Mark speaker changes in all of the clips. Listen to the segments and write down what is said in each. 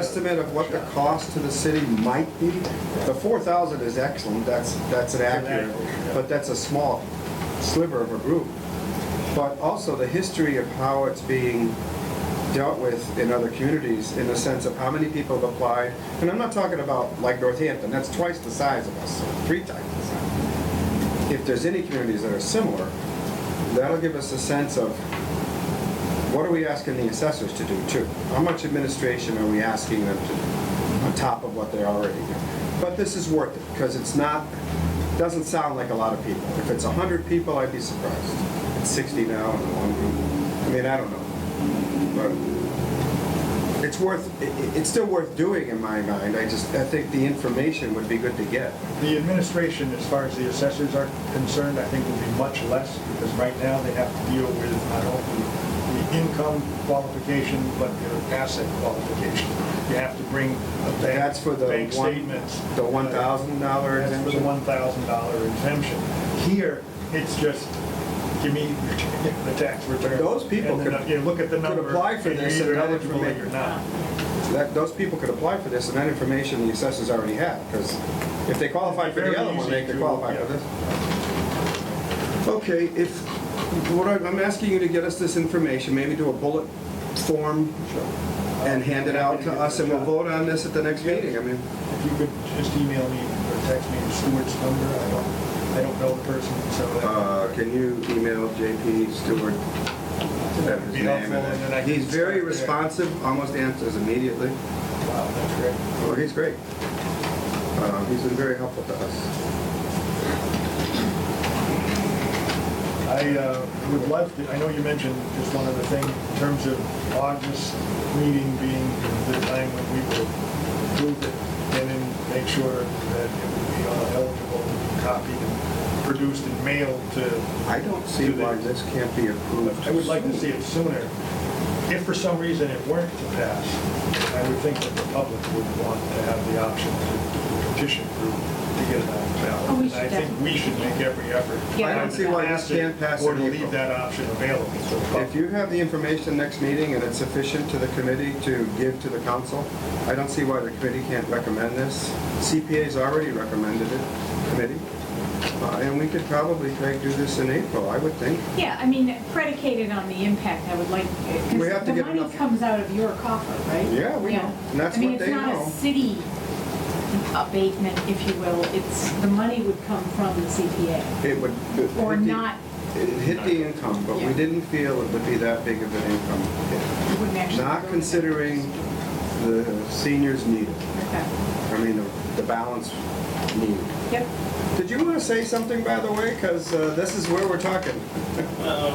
Speaker 1: Estimate of what the cost to the city might be? The four thousand is excellent, that's, that's an accurate, but that's a small sliver of a group. But also the history of how it's being dealt with in other communities, in the sense of how many people have applied. And I'm not talking about like Northampton, that's twice the size of us, three times the size. If there's any communities that are similar, that'll give us a sense of what are we asking the assessors to do too? How much administration are we asking them to, do on top of what they're already doing? But this is worth it, because it's not, doesn't sound like a lot of people. If it's hundred people, I'd be surprised. It's sixty now in the one group. I mean, I don't know. But it's worth, i- i- it's still worth doing in my mind. I just, I think the information would be good to get.
Speaker 2: The administration, as far as the assessors are concerned, I think will be much less, because right now they have to deal with not only the income qualification, but their asset qualification. You have to bring a bank.
Speaker 1: That's for the
Speaker 2: Bank
Speaker 1: one-
Speaker 2: statements. Uh,
Speaker 1: the $1,000
Speaker 2: That's for the
Speaker 1: exemption?
Speaker 2: one thousand dollar exemption. Here, it's just, give me the tax return.
Speaker 1: Those people
Speaker 2: And the nu-
Speaker 1: could-
Speaker 2: You look at the
Speaker 1: could
Speaker 2: number.
Speaker 1: apply for
Speaker 2: and you're
Speaker 1: this and
Speaker 2: either
Speaker 1: not
Speaker 2: eligible
Speaker 1: information.
Speaker 2: or you're not.
Speaker 1: That, those people could apply for this, and that information the assessors already have, because if they qualify for the
Speaker 2: Very
Speaker 1: other one, they
Speaker 2: easy
Speaker 1: could
Speaker 2: to-
Speaker 1: qualify for this. Okay, if, what I'm, I'm asking you to get us this information, maybe do a bullet form and hand it out to us, and we'll vote on this at the next meeting, I mean.
Speaker 2: If you could just email me or text me Stewart's number, I don't, I don't know the person, so that
Speaker 1: Uh, can you email JP Stewart?
Speaker 2: that would be helpful, and then I can...
Speaker 1: He's very
Speaker 2: start
Speaker 1: responsive, almost answers immediately.
Speaker 2: there. Wow, that's great.
Speaker 1: Well, he's great. Uh, He's been very helpful to us.
Speaker 2: I uh, would love to, I know you mentioned just one other thing, in terms of August meeting being the time when we will approve it, and then make sure that it will be all eligible, copied, and produced and mailed to
Speaker 1: I don't see why this can't be approved.
Speaker 2: I would like to see it sooner. If for some reason it weren't to pass, I would think that the public would want to have the option to petition through to get it on the ballot.
Speaker 3: Oh, we
Speaker 2: And I
Speaker 3: should
Speaker 2: think we should make every effort.
Speaker 3: Yeah. I don't
Speaker 2: to
Speaker 3: see why
Speaker 1: this
Speaker 2: pass it
Speaker 1: can't pass
Speaker 2: Or
Speaker 1: in
Speaker 2: to
Speaker 1: April.
Speaker 2: leave that option available. to the public.
Speaker 1: If you have the information next meeting and it's sufficient to the committee to give to the council, I don't see why the committee can't recommend this. CPA's already recommended it, committee. Uh, And we could probably try to do this in April, I would think.
Speaker 3: Yeah, I mean, predicated on the impact, I would like,
Speaker 1: We have
Speaker 3: because
Speaker 1: to
Speaker 3: the
Speaker 1: get
Speaker 3: money
Speaker 1: enough-
Speaker 3: comes out of your coffer, right?
Speaker 1: Yeah, we know. And that's
Speaker 3: I mean,
Speaker 1: what
Speaker 3: it's
Speaker 1: they
Speaker 3: not
Speaker 1: know.
Speaker 3: a city abatement, if you will, it's, the money would come from the CPA.
Speaker 1: It would. it
Speaker 3: Or
Speaker 1: hit the-
Speaker 3: not.
Speaker 1: It hit the income, but we
Speaker 3: Yeah.
Speaker 1: didn't feel it would be that big of an income. hit.
Speaker 3: It wouldn't actually go
Speaker 1: Not
Speaker 3: to-
Speaker 1: considering the seniors needed,
Speaker 3: Okay.
Speaker 1: I mean, the- the balance needed.
Speaker 3: Yep,
Speaker 1: Did you want to say something, by the way? Because uh, this is where we're talking.
Speaker 4: Uh,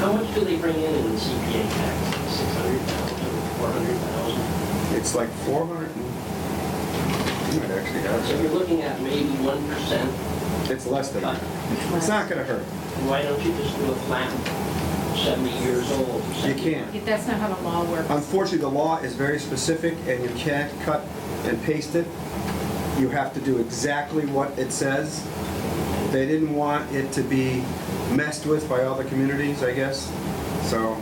Speaker 4: How much do they bring in in CPA tax? Six hundred thousand, four hundred thousand?
Speaker 1: It's like 400. And, you might actually
Speaker 4: So you're
Speaker 1: have
Speaker 4: looking at maybe one percent.
Speaker 1: it. It's less than that. It's not going to hurt.
Speaker 4: Why don't you just do a flat seventy years old?
Speaker 1: You
Speaker 4: 70?
Speaker 1: can't.
Speaker 3: If that's not how the law works.
Speaker 1: Unfortunately, the law is very specific and you can't cut and paste it. You have to do exactly what it says. They didn't want it to be messed with by all the communities, I guess. So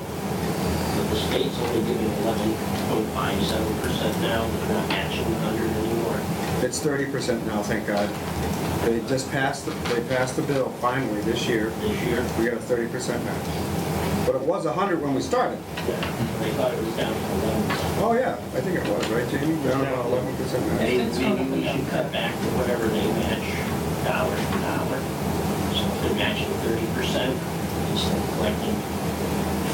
Speaker 4: But the state's only giving eleven point five seven percent now, they're not matching a hundred anymore.
Speaker 1: It's thirty percent now, thank God. They just passed, the they passed the bill finally this year.
Speaker 4: This year?
Speaker 1: We got a thirty percent match. But it was hundred when we started.
Speaker 4: They thought it was down to eleven.
Speaker 1: Oh, yeah, I think it was, right, Jamie? Down about eleven percent match.
Speaker 4: Maybe,
Speaker 3: That's
Speaker 4: maybe
Speaker 3: totally
Speaker 4: we should
Speaker 3: up.
Speaker 4: cut back to whatever they match, dollar for dollar. So if they're matching thirty percent, instead of collecting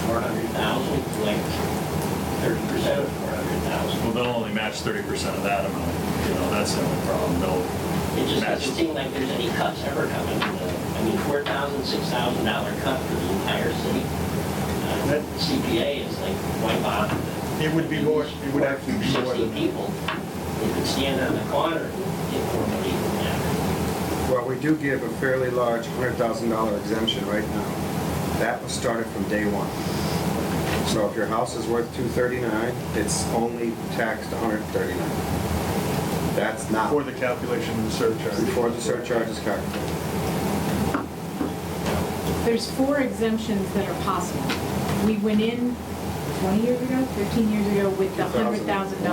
Speaker 4: four hundred thousand, collect thirty percent of four hundred thousand.
Speaker 5: Well, they'll only match thirty percent of that amount, you know, that's the only problem,
Speaker 4: It
Speaker 5: they'll
Speaker 4: just doesn't
Speaker 5: match.
Speaker 4: seem like there's any cuts ever coming. I mean, four thousand, six thousand dollar cut for the entire city. Uh,
Speaker 2: That-
Speaker 4: CPA is like, why bother?
Speaker 2: It would be more, it would actually be more
Speaker 4: Sixty
Speaker 2: than that.
Speaker 4: people, they could stand on the corner and get more money than that.
Speaker 1: Well, we do give a fairly large hundred thousand dollar exemption right now. That was started from day one. So if your house is worth two thirty-nine, it's only taxed hundred thirty-nine. That's not
Speaker 2: For the calculation of the surcharge.
Speaker 1: before the surcharge is calculated.
Speaker 3: There's four exemptions that are possible. We went in 20 years ago, 15 years ago, with the
Speaker 1: 2000.
Speaker 3: $100,000